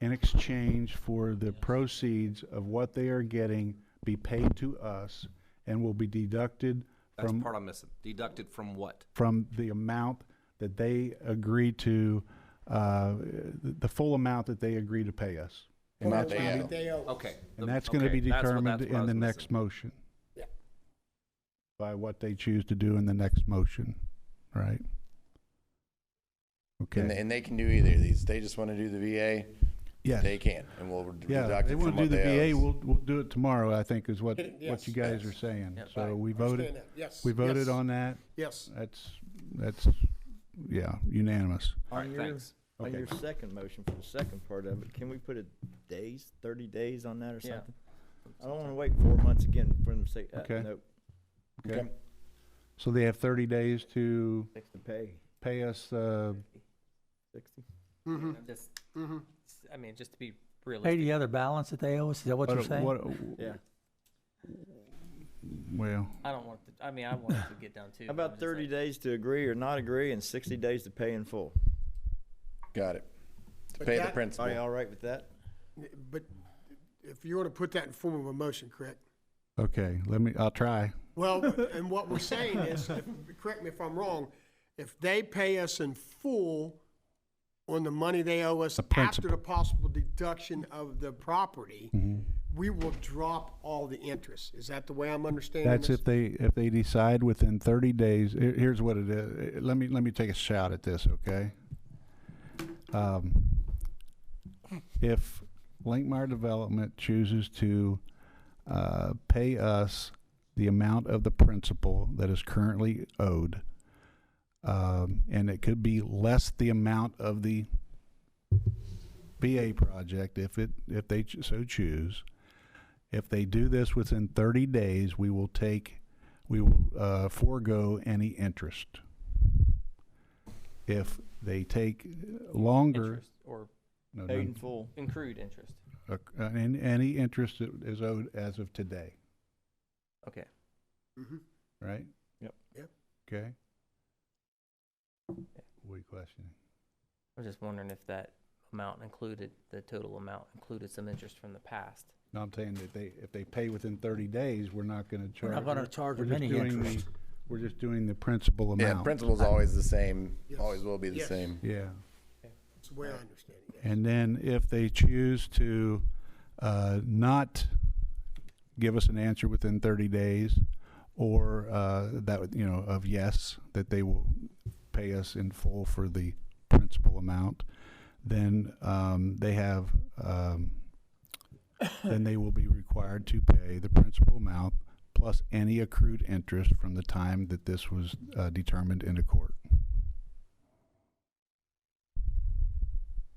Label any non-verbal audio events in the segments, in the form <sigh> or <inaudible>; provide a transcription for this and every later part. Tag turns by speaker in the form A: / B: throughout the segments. A: in exchange for the proceeds of what they are getting be paid to us and will be deducted
B: That's the
A: from,
B: part I'm missing. Deducted from what?
A: from the amount that they agree to, uh, the the full amount that they agree to pay us. And that's gonna be-
C: They owe us.
B: Okay.
A: And
B: the-
A: that's gonna be
B: okay, that's what-
A: determined
B: that's what I
A: in the
B: was
A: next
B: missing.
A: motion.
C: Yeah.
A: By what they choose to do in the next motion, right?
D: And,
A: Okay,
D: and they can do either of these. They just want to do the VA.
A: yes.
D: They can, and we'll reduct
A: Yeah,
D: it
A: they
D: from what
A: want to do the VA,
D: they owe. us.
A: we'll, we'll do it tomorrow, I think, is
C: <laughs>
A: what, what
C: Yes,
A: you guys
C: yes.
A: are saying.
C: Right.
A: So we
C: Understand
A: voted,
C: that. Yes.
A: we voted
C: yes,
A: on that.
C: Yes.
A: That's, that's, yeah, unanimous.
B: All right,
E: On your-
B: thanks.
E: On
A: Okay.
E: your second motion for the second part of it, can we put a days, thirty days on that or
B: Yeah.
E: something? I don't wanna wait four months again for them to say, uh,
A: Okay.
E: nope,
A: Okay. So they have thirty days to
E: six to pay,
A: pay us, uh,
E: sixty?
C: Mhm,
F: I'm just,
C: mhm.
F: I mean, just to be
G: Pay
F: realistic.
G: the other balance that they owe us, is that what you're saying?
A: what,
E: Yeah.
A: well,
F: I don't want, to- I mean, I want it to get down to.
E: How about thirty days to agree or not agree and sixty days to pay in full?
D: Got it. To
C: But
D: pay the
C: that-
E: Are you
D: principal.
E: all right with that?
C: But if you were to put that in form of a motion, correct?
A: okay, let me, I'll try. <laughs>
C: Well, and what we're saying is, if- correct me if I'm wrong, if they pay us in full on the money they owe us
A: The
C: after
A: principal. Mm-hmm.
C: the possible deduction of the property, we will drop all the interest. Is that the way I'm understanding this?
A: That's if they, if they decide within thirty days, here- here's what it is, Eh, let me, let me take a shot at this, okay? Um, If Linkmar Development chooses to, uh, pay us the amount of the principal that is currently owed, um, and it could be less the amount of the BA project if it, if they ch- so choose, if they do this within 30 days, we will take, we will uh, forego any interest. If they take longer,
F: Interest Or
A: no,
E: Paid
A: no,
E: in full.
F: accrued interest.
A: uh, and any interest that is owed as of today,
F: Okay.
C: Mhm.
A: right?
E: Yep.
C: Yep.
A: Okay. What are you questioning?
F: I was just wondering if that amount included, the total amount included some interest from the past.
A: No, I'm saying that they, if they pay within 30 days, we're not going to
G: We're
A: charge.
G: not gonna charge
A: we're
G: them
A: just
G: any
A: doing
G: interest.
A: the- We're just doing the principal
D: Yeah,
A: amount.
D: principal's always the same,
C: Yes.
D: always will be the
C: Yes.
D: same.
A: Yeah.
C: That's the way I understand it.
A: And then if they choose to uh, not give us an answer within 30 days, or uh, that, would- you know, of yes, that they will pay us in full for the principal amount, then um, they have, um, then they will be required to pay the principal amount plus any accrued interest from the time that this was uh, determined in a court.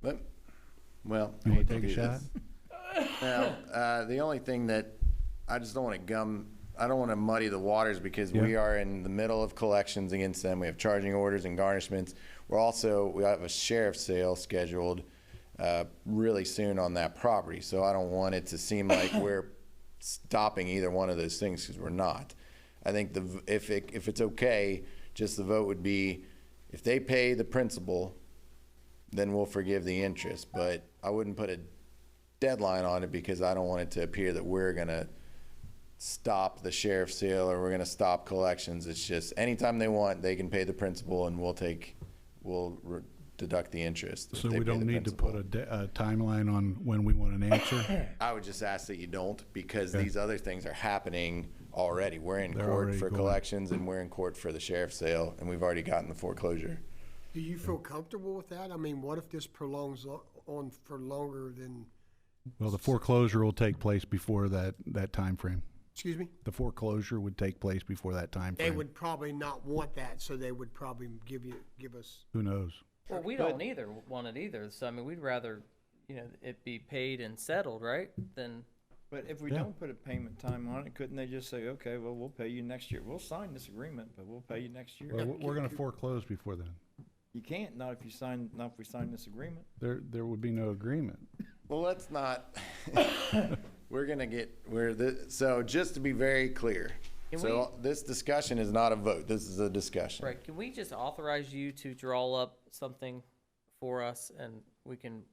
D: But, well. I
A: You want to
D: hate to
A: take a
D: do
A: shot?
D: this. <laughs> Now, uh, the only thing that, I just don't want to gum, I don't want to muddy the waters because we
A: Yeah.
D: are in the middle of collections against them. We have charging orders and garnishments. We're also, we have a sheriff's sale scheduled uh, really soon on that property. So I don't want it to
A: <coughs>
D: seem like we're stopping either one of those things because we're not. I think the, v- if it, if it's okay, just the vote would be, if they pay the principal, then we'll forgive the interest. But I wouldn't put a deadline on it because I don't want it to appear that we're gonna stop the sheriff's sale or we're gonna stop collections. It's just anytime they want, they can pay the principal and we'll take, we'll re- deduct the interest. if
A: So
D: they
A: we
D: pay the
A: don't need to
D: principal.
A: put a, de- a timeline on when we want an answer?
D: I would just ask that you don't because these other things are happening already. We're in
A: They're
D: court
A: already
D: for
A: going.
D: collections and we're in court for the sheriff's sale and we've already gotten the foreclosure.
C: Do you feel comfortable with that? I mean, what if this prolongs lo- on for longer than,
A: Well, the foreclosure will take place before that, that timeframe.
C: excuse me?
A: The foreclosure would take place before that timeframe.
C: They would probably not want that, so they would probably give you, give us,
A: Who knows?
F: Well, we don't either, want it either. So I mean, we'd rather, you know, it be paid and settled, right? Than,
E: But if we
A: Yeah.
E: don't put a payment time on it, couldn't they just say, okay, well, we'll pay you next year. We'll sign this agreement, but we'll pay you next year.
A: we're gonna foreclose before then.
E: You can't, not if you sign, not if we sign this agreement.
A: There, there would be no agreement.
D: Well, let's not. <laughs> we're gonna get we're the, so just to be very clear.
F: Can
D: so this discussion is not a vote. This is a discussion.
F: right, can we just authorize you to draw up something for us and we can